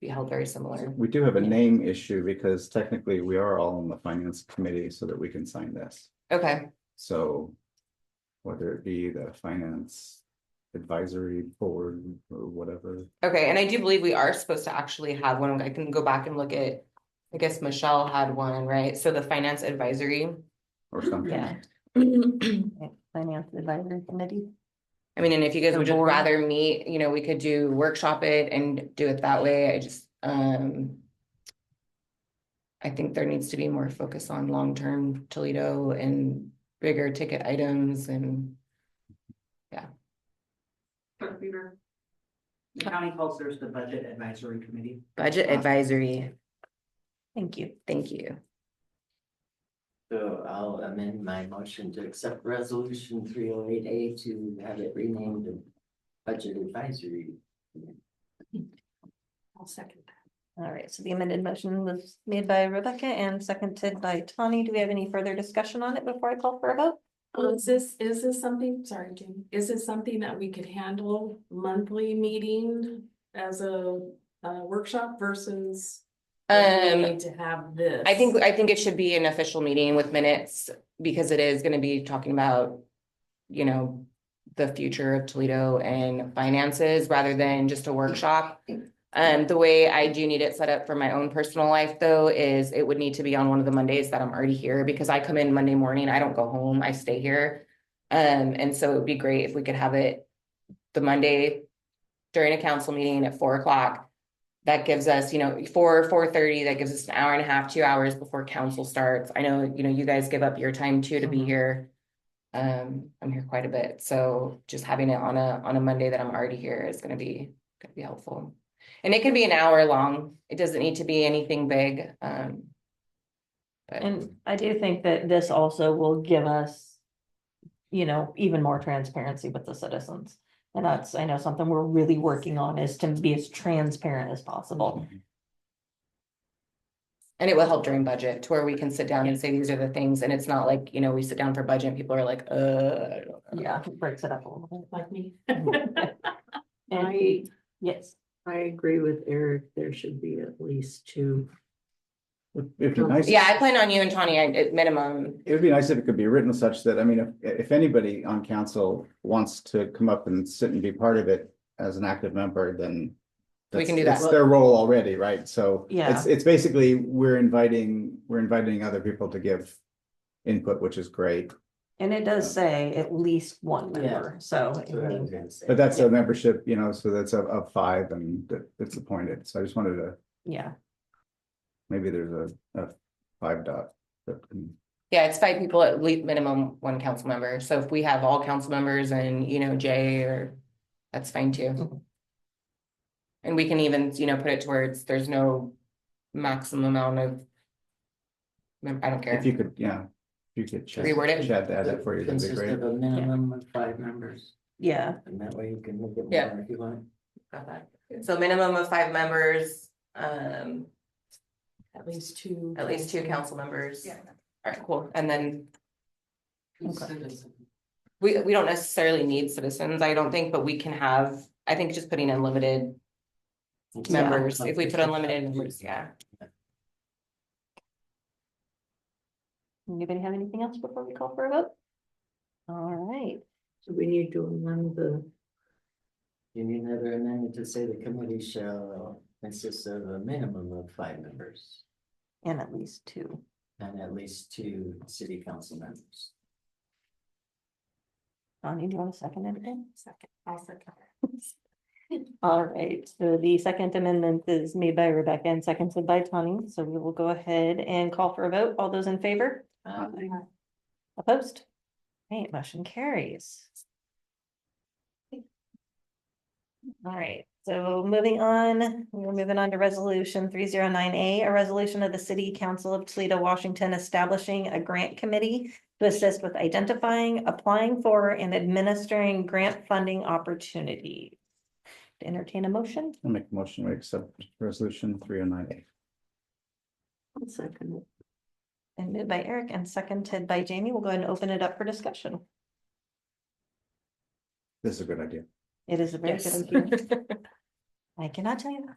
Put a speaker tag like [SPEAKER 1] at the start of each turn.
[SPEAKER 1] be held very similar.
[SPEAKER 2] We do have a name issue because technically we are all on the finance committee so that we can sign this,
[SPEAKER 1] Okay,
[SPEAKER 2] so. Whether it be the finance advisory board or whatever,
[SPEAKER 1] okay, and I do believe we are supposed to actually have one. I can go back and look at. I guess Michelle had one, right? So the finance advisory.
[SPEAKER 2] or something,
[SPEAKER 3] Yeah.
[SPEAKER 1] I mean,
[SPEAKER 3] Finance Advisory Committee.
[SPEAKER 1] and if you guys
[SPEAKER 3] The
[SPEAKER 1] would just
[SPEAKER 3] board.
[SPEAKER 1] rather meet, you know, we could do workshop it and do it that way. I just, um. I think there needs to be more focus on long-term Toledo and bigger ticket items and.
[SPEAKER 4] Clerk Weaver. The county calls theirs the Budget Advisory Committee.
[SPEAKER 1] Budget advisory,
[SPEAKER 3] Thank you.
[SPEAKER 1] thank you.
[SPEAKER 5] So I'll amend my motion to accept resolution three oh eight A to have it renamed the budget advisory.
[SPEAKER 4] I'll second that.
[SPEAKER 3] All right, so the amended motion was made by Rebecca and seconded by Tani. Do we have any further discussion on it before I call for a vote?
[SPEAKER 6] Well, is this, is this something, sorry, Jamie, is this something that we could handle monthly meeting as a, uh workshop versus? we
[SPEAKER 1] Um.
[SPEAKER 6] need To have this.
[SPEAKER 1] I think, I think it should be an official meeting with minutes, because it is gonna be talking about, you know, the future of Toledo and finances, rather than just a workshop. Um, the way I do need it set up for my own personal life, though, is it would need to be on one of the Mondays that I'm already here, because I come in Monday morning, I don't go home, I stay here. Um, and so it'd be great if we could have it the Monday during a council meeting at four o'clock that gives us, you know, four, four thirty, that gives us an hour and a half, two hours before council starts. I know, you know, you guys give up your time too to be here. Um, I'm here quite a bit, so just having it on a, on a Monday that I'm already here is gonna be, gonna be helpful. And it can be an hour long. It doesn't need to be anything big, um. But,
[SPEAKER 3] And I do think that this also will give us, you know, even more transparency with the citizens. And that's, I know, something we're really working on is to be as transparent as possible.
[SPEAKER 1] and it will help during budget to where we can sit down and say, these are the things, and it's not like, you know, we sit down for budget, and people are like, uh. I don't know.
[SPEAKER 3] Yeah, it breaks it up a little
[SPEAKER 6] Like me.
[SPEAKER 3] bit. And,
[SPEAKER 7] I,
[SPEAKER 3] yes,
[SPEAKER 7] I agree with Eric, there should be at least two.
[SPEAKER 2] it'd be nice.
[SPEAKER 1] Yeah, I plan on you and Tawny at at minimum,
[SPEAKER 2] It would be nice if it could be written such that, I mean, if, if anybody on council wants to come up and sit and be part of it as an active member, then.
[SPEAKER 1] We can
[SPEAKER 2] that's-
[SPEAKER 1] do
[SPEAKER 2] that's
[SPEAKER 1] that.
[SPEAKER 2] Their role already, right? So. It's, it's basically, we're inviting, we're inviting other people to give input, which is great,
[SPEAKER 3] and it does say at least one
[SPEAKER 5] Yeah.
[SPEAKER 3] member, so. I
[SPEAKER 5] That's what I
[SPEAKER 3] mean,
[SPEAKER 5] was gonna say.
[SPEAKER 2] but that's a membership, you know, so that's of, of five and that- it's appointed. So I just wanted to,
[SPEAKER 3] Yeah,
[SPEAKER 2] maybe there's a, a five dot. that can-
[SPEAKER 1] Yeah, it's five people at least minimum one council member. So if we have all council members and, you know, Jay or, that's fine too.
[SPEAKER 2] Mm-hmm.
[SPEAKER 3] Mhm.
[SPEAKER 1] And we can even, you know, put it towards, there's no maximum amount of. mem- I don't care.
[SPEAKER 2] If you could, yeah, if you could. chat-
[SPEAKER 1] Reword it.
[SPEAKER 2] Chat that up for you, that'd be
[SPEAKER 5] Consist
[SPEAKER 2] great.
[SPEAKER 5] of a minimum of five members,
[SPEAKER 3] yeah.
[SPEAKER 5] and that way you can make it
[SPEAKER 1] Yeah.
[SPEAKER 5] more if you want.
[SPEAKER 1] Got that. So minimum of five members, um,
[SPEAKER 6] At least two.
[SPEAKER 1] at least two council members. Yeah. All right, cool. And then
[SPEAKER 5] Citizen.
[SPEAKER 1] we, we don't necessarily need citizens, I don't think, but we can have, I think just putting in limited members, if we put unlimited, members, yeah.
[SPEAKER 3] Anybody have anything else before we call for a vote? All right,
[SPEAKER 7] So we need to amend the,
[SPEAKER 5] You need another amendment to say the committee shall consist of a minimum of five members
[SPEAKER 3] and at least two.
[SPEAKER 5] and at least two city council members.
[SPEAKER 3] Bonnie, do you want to second anything?
[SPEAKER 6] Second, I'll second.
[SPEAKER 3] All right, so the second amendment is made by Rebecca and seconded by Tony, so we will go ahead and call for a vote. All those in favor?
[SPEAKER 5] Uh,
[SPEAKER 3] Opposed? Right, motion carries. All right, so moving on, we're moving on to resolution three zero nine A, a resolution of the City Council of Toledo, Washington, establishing a grant committee to assist with identifying, applying for, and administering grant funding opportunities. Entertain a motion?
[SPEAKER 2] I'll make a motion, we accept resolution three oh nine eight.
[SPEAKER 7] I'll second it.
[SPEAKER 3] And moved by Eric and seconded by Jamie. We'll go ahead and open it up for discussion.
[SPEAKER 2] This is a good idea.
[SPEAKER 3] It is a very good
[SPEAKER 1] Yes.
[SPEAKER 3] idea. I cannot tell you